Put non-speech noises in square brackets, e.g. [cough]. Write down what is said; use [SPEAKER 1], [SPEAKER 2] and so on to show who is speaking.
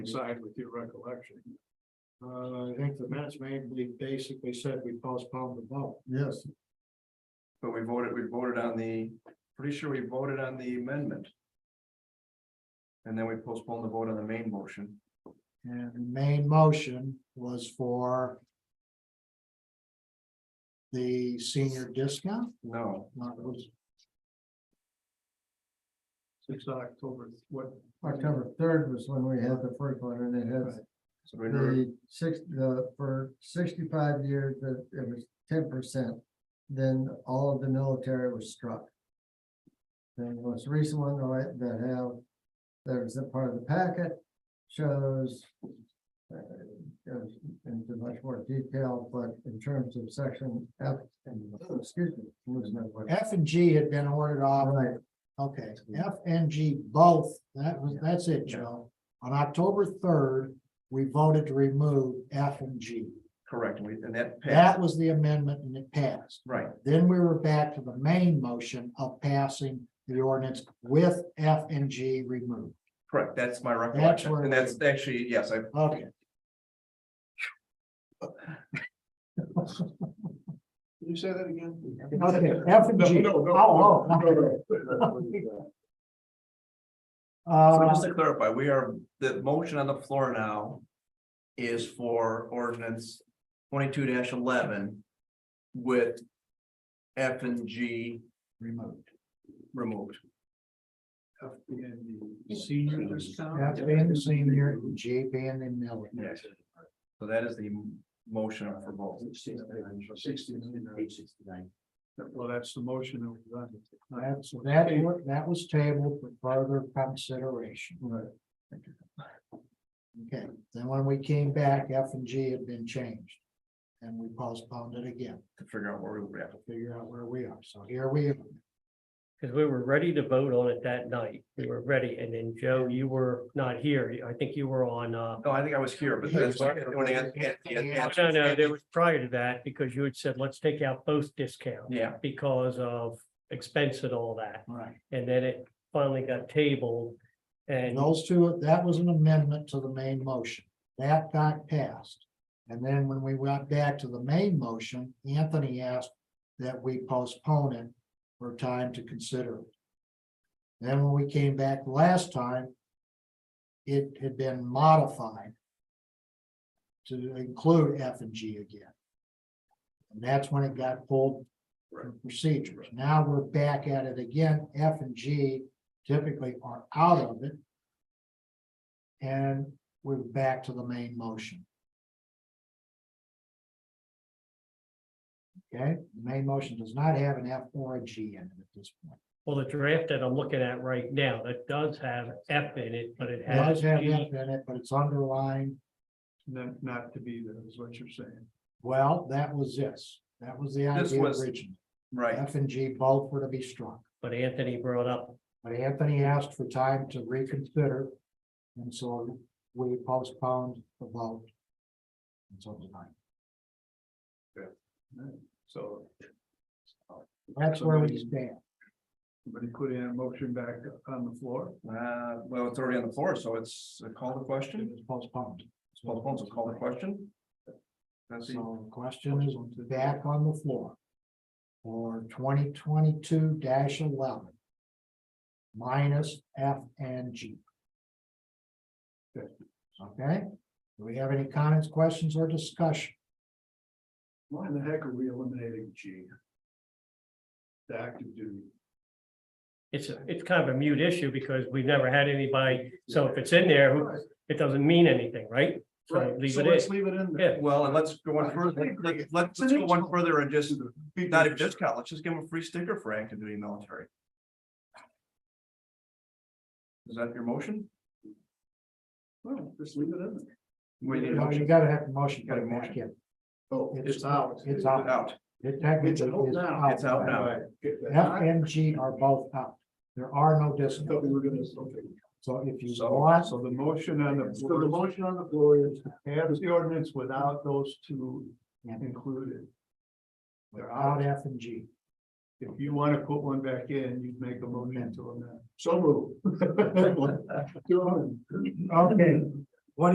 [SPEAKER 1] side with your recollection. Uh, I think the minutes made, we basically said we postponed the vote. Yes.
[SPEAKER 2] But we voted, we voted on the, pretty sure we voted on the amendment. And then we postponed the vote on the main motion.
[SPEAKER 1] And the main motion was for the senior discount,
[SPEAKER 2] No,
[SPEAKER 1] not was Six October, what? October third was when we had the first one, and it has
[SPEAKER 2] so we never,
[SPEAKER 1] the six, the, for sixty-five years, that it was ten percent. Then all of the military was struck. The most recent one that I- that have, there's a part of the packet shows. uh, Goes into much more detail, but in terms of section F and, excuse me. F and G had been ordered off. Right. Okay, F and G both, that was, that's it, Joe. On October third, we voted to remove F and G.
[SPEAKER 2] correctly, and that passed,
[SPEAKER 1] That was the amendment and it passed.
[SPEAKER 2] right,
[SPEAKER 1] Then we were back to the main motion of passing the ordinance with F and G removed.
[SPEAKER 2] correct, that's my recollection,
[SPEAKER 1] where
[SPEAKER 2] and
[SPEAKER 1] we-
[SPEAKER 2] that's actually, yes, I,
[SPEAKER 1] Okay.
[SPEAKER 3] Can you say that again?
[SPEAKER 1] Okay,
[SPEAKER 3] [laughs]
[SPEAKER 1] F and G.
[SPEAKER 3] No, no, no,
[SPEAKER 1] Oh, oh,
[SPEAKER 3] no,
[SPEAKER 2] so
[SPEAKER 1] [laughs] Uh,
[SPEAKER 2] just to clarify, we are, the motion on the floor now. Is for ordinance twenty-two eleven with F and G
[SPEAKER 1] removed.
[SPEAKER 2] removed.
[SPEAKER 3] no. Senior discount?
[SPEAKER 1] F being the senior, G being the military.
[SPEAKER 2] Yes. So that is the m- motion for both.
[SPEAKER 3] Well, that's the motion that we've done.
[SPEAKER 1] That's, that, wa- that was tabled for further consideration. Right. Okay, then when we came back, F and G had been changed. And we postponed it again
[SPEAKER 2] to figure out where we were at.
[SPEAKER 1] to figure out where we are. So here we are.
[SPEAKER 4] Because we were ready to vote on it that night. We were ready. And then Joe, you were not here. I think you were on, uh,
[SPEAKER 2] No, Oh, I think I was here, but that's. when I had- had- had-
[SPEAKER 4] no, no, there was prior to that because you had said, let's take out both discounts
[SPEAKER 2] Yeah,
[SPEAKER 4] because of expense and all that.
[SPEAKER 1] Right.
[SPEAKER 4] And then it finally got tabled. And
[SPEAKER 1] Those two, that was an amendment to the main motion. That got passed. And then when we went back to the main motion, Anthony asked that we postpone it for time to consider. it. Then when we came back last time, it had been modified to include F and G again. And that's when it got pulled from procedures. Now we're back at it again. F and G typically are out of it. And we're back to the main motion. Okay, the main motion does not have an F or a G in it at this point.
[SPEAKER 4] well, the draft that I'm looking at right now, that does have F in it, but it
[SPEAKER 1] It does
[SPEAKER 4] has.
[SPEAKER 1] have
[SPEAKER 4] G.
[SPEAKER 1] F in it, but it's underlined.
[SPEAKER 3] Not, not to be there is what you're saying.
[SPEAKER 1] Well, that was this. That was the
[SPEAKER 2] This
[SPEAKER 1] idea
[SPEAKER 2] was-
[SPEAKER 1] originally.
[SPEAKER 2] right.
[SPEAKER 1] F and G both were to be struck.
[SPEAKER 4] But Anthony brought up,
[SPEAKER 1] But Anthony asked for time to reconsider. And so we postponed the vote. Until tonight.
[SPEAKER 3] So,
[SPEAKER 1] That's where we stand.
[SPEAKER 3] somebody put in a motion back on the floor.
[SPEAKER 2] Uh, well, it's already on the floor, so it's called the
[SPEAKER 1] It
[SPEAKER 2] question.
[SPEAKER 1] was postponed.
[SPEAKER 2] It's called the phone, so call the question. That's the,
[SPEAKER 1] So the question is back on the floor. For twenty twenty-two eleven. Minus F and G. Okay, do we have any comments, questions, or discussion?
[SPEAKER 3] Why in the heck are we eliminating G? The active duty.
[SPEAKER 4] it's, it's kind of a mute issue because we've never had anybody. So if it's in there, who- it doesn't mean anything, right? So
[SPEAKER 3] Right,
[SPEAKER 4] leave
[SPEAKER 3] so
[SPEAKER 4] it in.
[SPEAKER 3] let's leave it in
[SPEAKER 4] Yeah.
[SPEAKER 3] there.
[SPEAKER 2] well, and let's go one further, Let- let's, let's go one further and just, not even discount, let's just give them a free sticker for active duty military. Is that your motion?
[SPEAKER 3] Well, Just leave it in there.
[SPEAKER 2] We need a
[SPEAKER 1] No, You
[SPEAKER 2] motion.
[SPEAKER 1] gotta have the motion,
[SPEAKER 2] Got a
[SPEAKER 1] gotta back in.
[SPEAKER 3] Oh,
[SPEAKER 1] It's out. It's out.
[SPEAKER 2] Out,
[SPEAKER 1] It technically
[SPEAKER 3] It's out
[SPEAKER 1] is
[SPEAKER 3] now.
[SPEAKER 1] out.
[SPEAKER 2] it's out now.
[SPEAKER 3] Get that.
[SPEAKER 1] F and G are both out. There are no
[SPEAKER 3] I thought we
[SPEAKER 1] discounts.
[SPEAKER 3] were gonna, okay.
[SPEAKER 1] So if you
[SPEAKER 2] So-
[SPEAKER 1] want,
[SPEAKER 3] So the motion on the.
[SPEAKER 1] So
[SPEAKER 3] floor.
[SPEAKER 1] the
[SPEAKER 3] motion on the floor is have the ordinance without those two
[SPEAKER 1] Yeah.
[SPEAKER 3] included. They're
[SPEAKER 1] out F and G.
[SPEAKER 3] If you want to put one back in, you'd [laughs] make a motion to amend. So move.
[SPEAKER 1] Okay,